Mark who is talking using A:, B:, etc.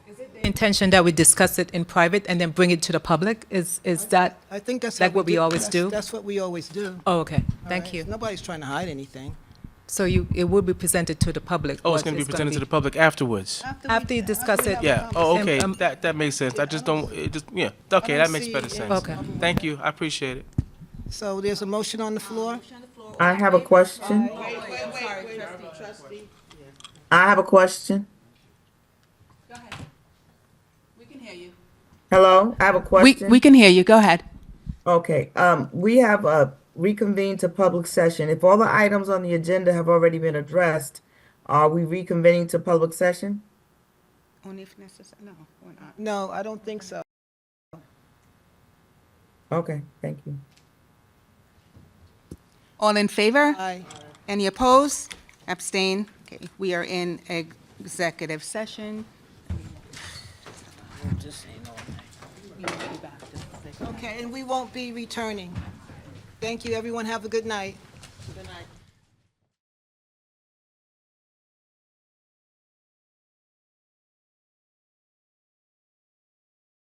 A: Intention that we discuss it in private and then bring it to the public? Is, is that,
B: I think that's.
A: Like
B: how
A: what we
B: did-
A: always
B: that's-
A: do?
B: That's what we always do.
A: oh, okay, thank
B: Alright,
A: you.
B: Nobody's trying to hide anything.
A: So you, it will be presented to the public?
C: Oh, it's
A: what
C: going to be
A: it's
C: presented to the public afterwards.
A: After you discuss it.
C: Yeah. Oh,
A: And,
C: okay.
A: um,
C: That that makes sense. I just don't. It just yeah. Okay, that makes better sense.
A: Okay.
C: Thank you. I appreciate it.
B: So there's a motion on the floor?
D: I have a question. I have a question.
E: Go ahead. We can hear you.
D: Hello, I have a
E: We,
D: question.
E: we can hear you. Go ahead.
D: Okay, um, we have, uh, reconvened to public session. If all the items on the agenda have already been addressed, are we reconvening to public session?
F: Only if necessary, no, we're not.
B: No, I don't think so.
D: Okay, thank you.
F: All in favor?
B: Aye.
F: Any opposed? Abstain? Okay, we are in executive session.
B: Okay, and we won't be returning. Thank you, everyone. Have a good night. Good night.